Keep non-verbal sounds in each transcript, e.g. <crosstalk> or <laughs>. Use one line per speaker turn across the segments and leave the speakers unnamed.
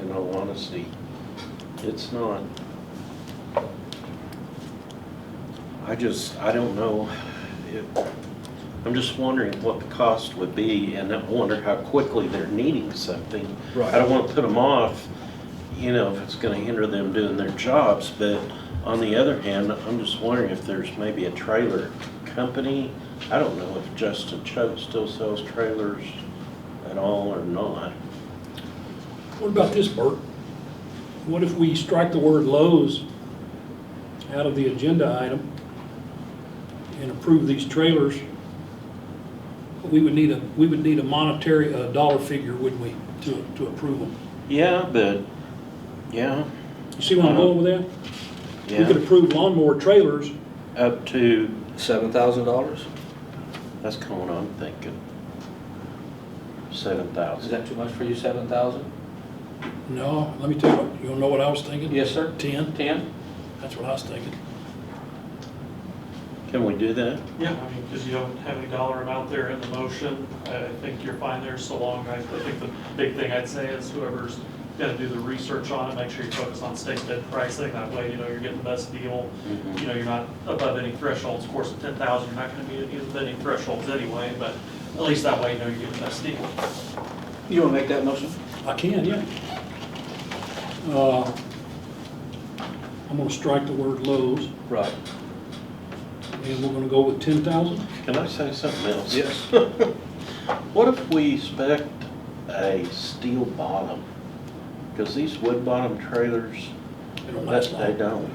in all honesty. It's not. I just, I don't know. It- I'm just wondering what the cost would be and I wonder how quickly they're needing something. I don't want to put them off, you know, if it's going to hinder them doing their jobs. But on the other hand, I'm just wondering if there's maybe a trailer company. I don't know if Justin Choate still sells trailers at all or not.
What about this, Bert? What if we strike the word Lowe's out of the agenda item and approve these trailers? We would need a, we would need a monetary, a dollar figure, wouldn't we, to, to approve them?
Yeah, but, yeah,
You see where I'm going with that? We could
yeah,
approve lawnmower trailers,
up to,
Seven thousand dollars?
that's kind of what I'm thinking. Seven
Is
thousand.
that too much for you, seven thousand?
no, let me tell you, what- you wanna know what I was thinking?
Yes, sir.
Ten,
Ten?
that's what I was thinking.
Can we do that?
Yeah, I mean, because you don't have any dollar amount there in the motion, I I think you're fine there so long. I I think the big thing I'd say is whoever's gonna do the research on it, make sure you focus on state bid pricing. That way, you know, you're getting the best deal.
Mhm.
You know, you're not above any thresholds. Of course, at ten thousand, you're not gonna meet any of any thresholds anyway, but at least that way, you know, you're getting the best deal.
You wanna make that motion?
I can, yeah. Uh, I'm gonna strike the word Lowe's,
Right.
and we're gonna go with ten thousand?
Can I say something else?
Yes.
<laughs> What if we spec a steel bottom? Because these wood bottom trailers,
They don't
that-
last long.
they don't.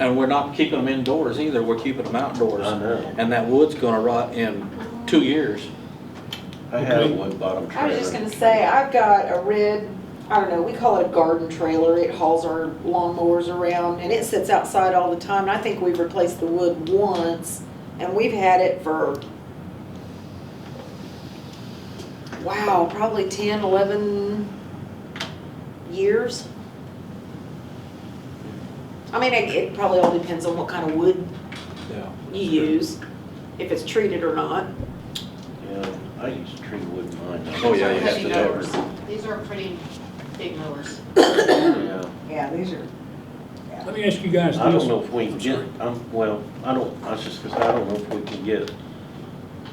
And we're not keeping them indoors either, we're keeping them outdoors.
I know.
And that wood's gonna rot in two years.
I had a
Okay.
wood bottom trailer.
I was just gonna say, I've got a red, I don't know, we call it a garden trailer, it hauls our lawnmowers around, and it sits outside all the time, and I think we've replaced the wood once, and we've had it for, wow, probably ten, eleven years. I mean, it, it probably all depends on what kind of wood
Yeah.
you use, if it's treated or not.
Yeah, I used to treat wood in mine.
Oh, yeah, you have
Heavy
to
mowers. These are pretty big mowers.
Yeah.
Yeah, these are
Let me ask you guys this.
I don't know if we can
I'm
get,
sorry.
um, well, I don't, I was just gonna say, I don't know if we can get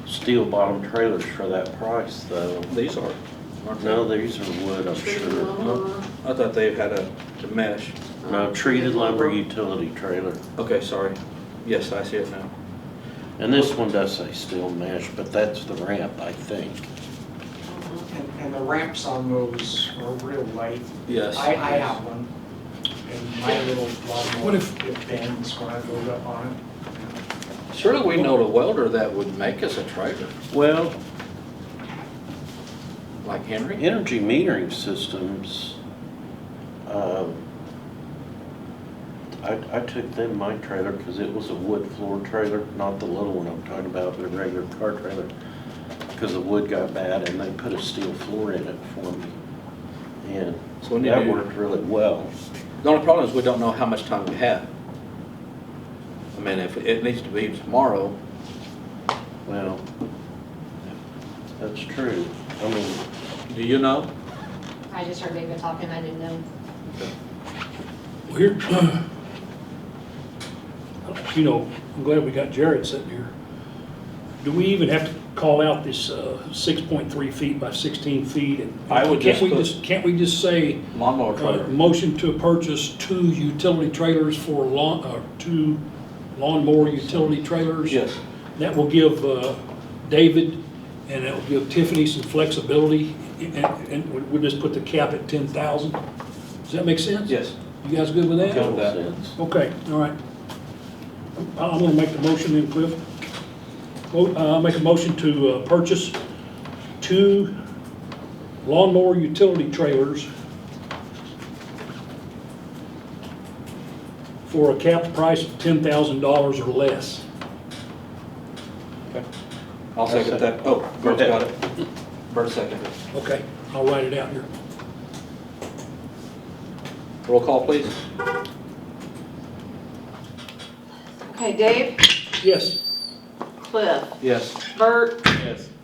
steel bottom trailers for that price though.
These are, aren't they?
No, these are wood, I'm
treated
sure.
lumber.
I thought they had a to mesh.
No, treated lumber utility trailer.
Okay, sorry. Yes, I see it now.
And this one does say steel mesh, but that's the ramp, I think.
And, and the ramps on those are real light.
Yes.
I, I have one, and my little
What
lawnmower,
if-
it bends when I load up on it.
Surely we know the welder that would make us a trailer,
Well,
like Henry?
energy metering systems, um, I, I took them, my trailer, because it was a wood floor trailer, not the little one I'm talking about, but a regular car trailer, because the wood got bad and they put a steel floor in it for me. And
So we need
that
to-
worked really well.
The only problem is we don't know how much time we have. I mean, if it needs to be tomorrow,
Well, that's true. I mean,
do you know?
I just heard David talking, I didn't know.
Well, Here, <clears throat> you know, I'm glad we got Jared sitting here. Do we even have to call out this uh, 6.3 feet by 16 feet? And
I would
Can't
just
we
put-
just, can't we just say,
Lawnmower
uh,
trailer.
motion to purchase two utility trailers for lawn, uh, two lawnmower utility trailers?
Yes.
That will give uh, David and it will give Tiffany some flexibility and- and we- we'll just put the cap at 10,000. Does that make sense?
Yes.
You guys good with that?
Good.
total
that.
sense.
Okay, all right. I- I'm gonna make the motion then, Cliff. Mo- uh, I'll make a motion to uh, purchase two lawnmower utility trailers for a capped price of $10,000 or less.
I'll second that. Oh, Bert's got it. Bert seconded.
Okay, I'll write it out here.
Roll call, please.
Okay, Dave,
Yes,
Cliff,
Yes.
Bert,
Yes.